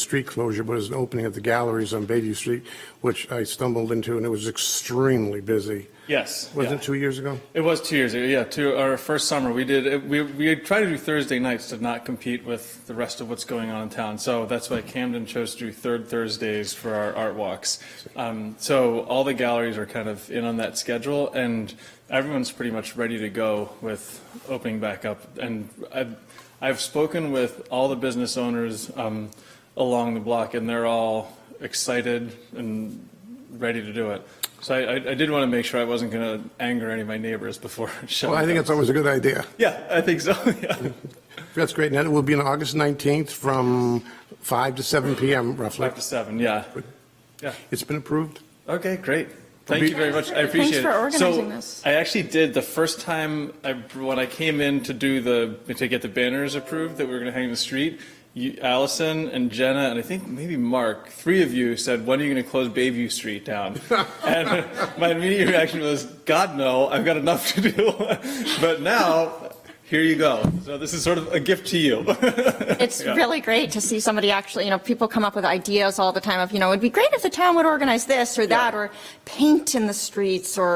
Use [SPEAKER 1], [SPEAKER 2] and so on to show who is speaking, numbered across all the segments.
[SPEAKER 1] street closure, but it was an opening of the galleries on Bayview Street, which I stumbled into, and it was extremely busy.
[SPEAKER 2] Yes.
[SPEAKER 1] Was
[SPEAKER 2] yeah.
[SPEAKER 1] it two years ago?
[SPEAKER 2] It was two years ago. Yeah, two our first summer we did. it- We we tried to do Thursday nights to not compete with the rest of what's going on in town. So that's why Camden chose to do third Thursdays for our art walks. Um, so all the galleries are kind of in on that schedule, and everyone's pretty much ready to go with opening back up. And I've I've spoken with all the business owners um, along the block, and they're all excited and ready to do it. So I, I I did want to make sure I wasn't going to anger any of my neighbors before showing
[SPEAKER 1] Well, I think
[SPEAKER 2] up.
[SPEAKER 1] it's always a good idea.
[SPEAKER 2] Yeah, I think so, yeah.
[SPEAKER 1] That's great, and then it will be on August 19th from 5 to 7 PM roughly.
[SPEAKER 2] Five to seven, yeah. Yeah,
[SPEAKER 1] It's been approved?
[SPEAKER 2] okay, great. Thank you very much, I
[SPEAKER 3] Thanks
[SPEAKER 2] appreciate it.
[SPEAKER 3] for organizing
[SPEAKER 2] So,
[SPEAKER 3] this.
[SPEAKER 2] I actually did, the first time, I when I came in to do the, to get the banners approved that we were going to hang in the street, you- Allison and Jenna, and I think maybe Mark, three of you said, when are you going to close Bayview Street down? And my immediate reaction was, God, no, I've got enough to do. But now, here you go. So this is sort of a gift to you.
[SPEAKER 3] It's really great to see somebody actually, you know, people come up with ideas all the time of, you know, it'd be great if the town would organize this or that,
[SPEAKER 2] Yeah.
[SPEAKER 3] or paint in the streets or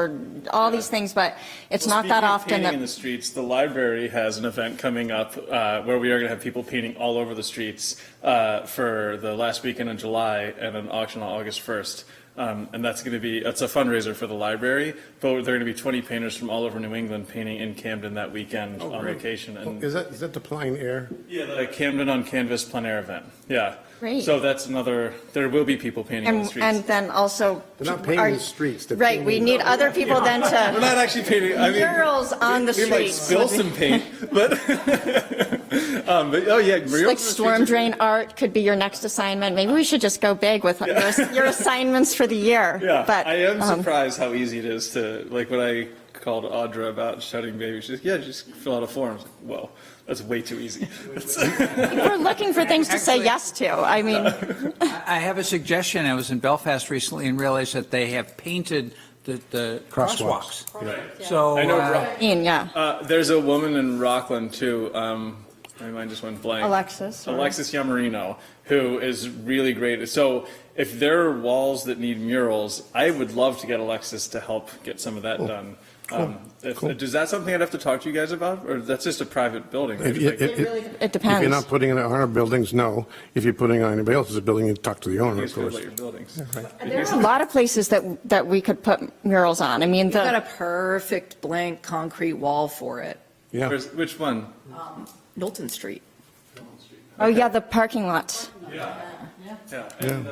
[SPEAKER 3] all these things, but it's
[SPEAKER 2] Well,
[SPEAKER 3] not that
[SPEAKER 2] speaking of
[SPEAKER 3] often
[SPEAKER 2] painting in the
[SPEAKER 3] that,
[SPEAKER 2] streets, the library has an event coming up uh, where we are going to have people painting all over the streets uh, for the last weekend in July and an auction on August 1st. Um, and that's going to be it's a fundraiser for the library, but there are going to be 20 painters from all over New England painting in Camden that weekend on
[SPEAKER 1] great.
[SPEAKER 2] location. And
[SPEAKER 1] Is that, is that the plein air?
[SPEAKER 2] yeah, the Camden on Canvas plein air event. Yeah.
[SPEAKER 3] Great.
[SPEAKER 2] So that's another. There will be people painting in the
[SPEAKER 3] and,
[SPEAKER 2] streets.
[SPEAKER 3] and then also.
[SPEAKER 1] They're not painting
[SPEAKER 3] are-
[SPEAKER 1] the streets, they're
[SPEAKER 3] Right, we
[SPEAKER 1] painting-
[SPEAKER 3] need other people then
[SPEAKER 2] we're
[SPEAKER 3] to,
[SPEAKER 2] not actually painting. I mean,
[SPEAKER 3] murals on the
[SPEAKER 2] we might
[SPEAKER 3] streets.
[SPEAKER 2] spill some paint, but um, but oh yeah, murals
[SPEAKER 3] like storm drain art could be your next assignment. Maybe we should just go big with your- your assignments for the year.
[SPEAKER 2] Yeah,
[SPEAKER 3] But,
[SPEAKER 2] I am
[SPEAKER 3] um,
[SPEAKER 2] surprised how easy it is to like when I called Audra about shutting baby. She's like, yeah, just fill out a form. I was like, Whoa, that's way too easy.
[SPEAKER 3] We're looking for things to say
[SPEAKER 4] Actually-
[SPEAKER 3] yes to. I mean.
[SPEAKER 4] I have a suggestion. I was in Belfast recently and realized that they have painted the, the
[SPEAKER 1] Crosswalks.
[SPEAKER 4] crosswalks. So.
[SPEAKER 2] Oh, I know
[SPEAKER 4] uh,
[SPEAKER 2] Rock-
[SPEAKER 3] Ian, yeah.
[SPEAKER 2] uh, there's a woman in Rockland too. Um, my mind just went blank.
[SPEAKER 3] Alexis, or-
[SPEAKER 2] Alexis Yamarino, who is really great. So if there are walls that need murals, I would love to get Alexis to help get some of that done. Um, if, Is that something I'd have to talk to you guys about, or that's just a private building? right?
[SPEAKER 1] If you-
[SPEAKER 2] Like-
[SPEAKER 1] if- if-
[SPEAKER 3] It
[SPEAKER 1] If you're
[SPEAKER 3] depends.
[SPEAKER 1] not putting it on our buildings, no. If you're putting it on anybody else's building, you talk to the owner,
[SPEAKER 2] It's
[SPEAKER 1] of
[SPEAKER 2] good
[SPEAKER 1] course.
[SPEAKER 2] about your buildings.
[SPEAKER 3] There's a lot of places that, that we could put murals on. I mean,
[SPEAKER 5] You've got a
[SPEAKER 3] the,
[SPEAKER 5] perfect blank concrete wall for it.
[SPEAKER 1] Yeah.
[SPEAKER 2] Where's- Which one?
[SPEAKER 5] Knowlton Street.
[SPEAKER 3] oh yeah, the parking lot.
[SPEAKER 2] Yeah, and the,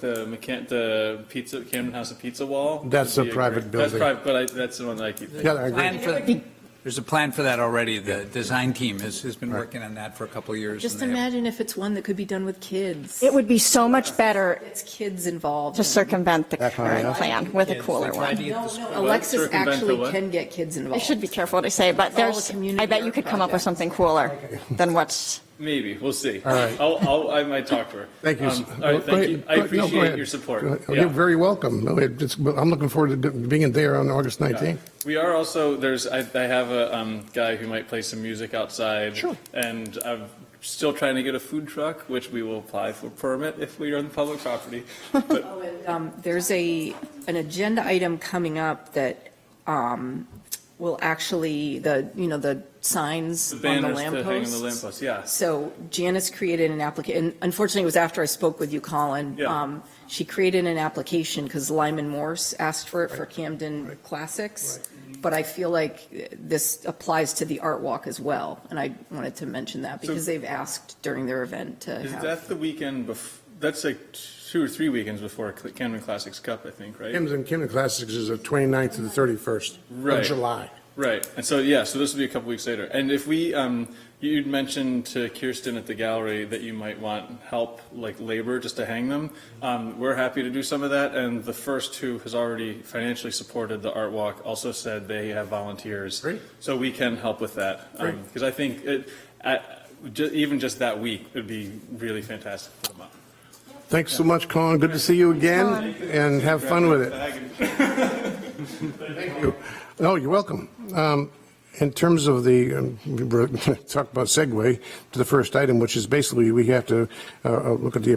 [SPEAKER 2] the mechan, the pizza, Camden House of Pizza Wall.
[SPEAKER 1] That's
[SPEAKER 2] would
[SPEAKER 1] a
[SPEAKER 2] be
[SPEAKER 1] private
[SPEAKER 2] great- That's
[SPEAKER 1] building.
[SPEAKER 2] private, but I, that's the one that I keep.
[SPEAKER 1] Yeah, I agree.
[SPEAKER 4] plan for- There's a plan for that already. The design team has, has been working on that for a couple of years.
[SPEAKER 5] Just
[SPEAKER 4] and they have-
[SPEAKER 5] imagine if it's one that could be done with kids.
[SPEAKER 3] It would be so much better
[SPEAKER 5] It's kids involved.
[SPEAKER 3] to circumvent the
[SPEAKER 1] That kind
[SPEAKER 3] current
[SPEAKER 1] of-
[SPEAKER 3] plan with a
[SPEAKER 4] Kids,
[SPEAKER 3] cooler
[SPEAKER 4] they tried
[SPEAKER 3] one.
[SPEAKER 4] to get the school-
[SPEAKER 5] Alexis
[SPEAKER 2] Circumvent the
[SPEAKER 5] actually
[SPEAKER 2] what?
[SPEAKER 5] can get kids
[SPEAKER 3] I
[SPEAKER 5] involved.
[SPEAKER 3] should be careful what I say, but
[SPEAKER 5] It's all a
[SPEAKER 3] there's, I
[SPEAKER 5] community
[SPEAKER 3] bet you
[SPEAKER 5] art
[SPEAKER 3] could come up with
[SPEAKER 5] project.
[SPEAKER 3] something cooler than what's,
[SPEAKER 2] Maybe, we'll see.
[SPEAKER 1] All right.
[SPEAKER 2] I'll, I'll, I might talk to her.
[SPEAKER 1] Thank you.
[SPEAKER 2] Um,
[SPEAKER 1] sir.
[SPEAKER 2] All right,
[SPEAKER 1] Go
[SPEAKER 2] thank you.
[SPEAKER 1] ahead. Go-
[SPEAKER 2] I
[SPEAKER 1] no, go
[SPEAKER 2] appreciate
[SPEAKER 1] ahead.
[SPEAKER 2] your support.
[SPEAKER 1] Go ahead. Oh,
[SPEAKER 2] Yeah.
[SPEAKER 1] You're very welcome. No, it- it's- I'm looking forward to being there on August 19th.
[SPEAKER 2] We are also, there's, I, I have a, um, guy who might play some music outside.
[SPEAKER 1] Sure.
[SPEAKER 2] And I'm still trying to get a food truck, which we will apply for permit if we are on public property. But,
[SPEAKER 5] Um, There's a, an agenda item coming up that um, will actually, the, you know, the signs
[SPEAKER 2] the
[SPEAKER 5] on the
[SPEAKER 2] banners
[SPEAKER 5] lampposts.
[SPEAKER 2] to hang on the lampposts, yeah.
[SPEAKER 5] So Janice created an application, and unfortunately, it was after I spoke with you, Colin.
[SPEAKER 2] Yeah.
[SPEAKER 5] Um, She created an application because Lyman Morse asked for it for Camden Classics.
[SPEAKER 2] Mm-hmm.
[SPEAKER 5] But I feel like this applies to the art walk as well, and I wanted to mention that because they've asked during their event to
[SPEAKER 2] Is
[SPEAKER 5] have.
[SPEAKER 2] that the weekend bef, that's like two or three weekends before Cl- Camden Classics Cup, I think, right?
[SPEAKER 1] Kim's and Kim and Classics is the 29th to the 31st of
[SPEAKER 2] Right.
[SPEAKER 1] July.
[SPEAKER 2] Right, and so, yeah, so this will be a couple weeks later. And if we, um, you'd mentioned to Kirsten at the gallery that you might want help, like labor, just to hang them. Um, we're happy to do some of that, and the first who has already financially supported the art walk also said they have volunteers.
[SPEAKER 1] Great.
[SPEAKER 2] So we can help with that. Because I think it, at, ju- even just that week would be really fantastic for them.
[SPEAKER 1] Thanks so much, Colin. Good to see you again, and have fun with it. Thank you. No, you're welcome. Um, In terms of the, um, we were- talked about segue to the first item, which is basically we have to uh, uh, look at the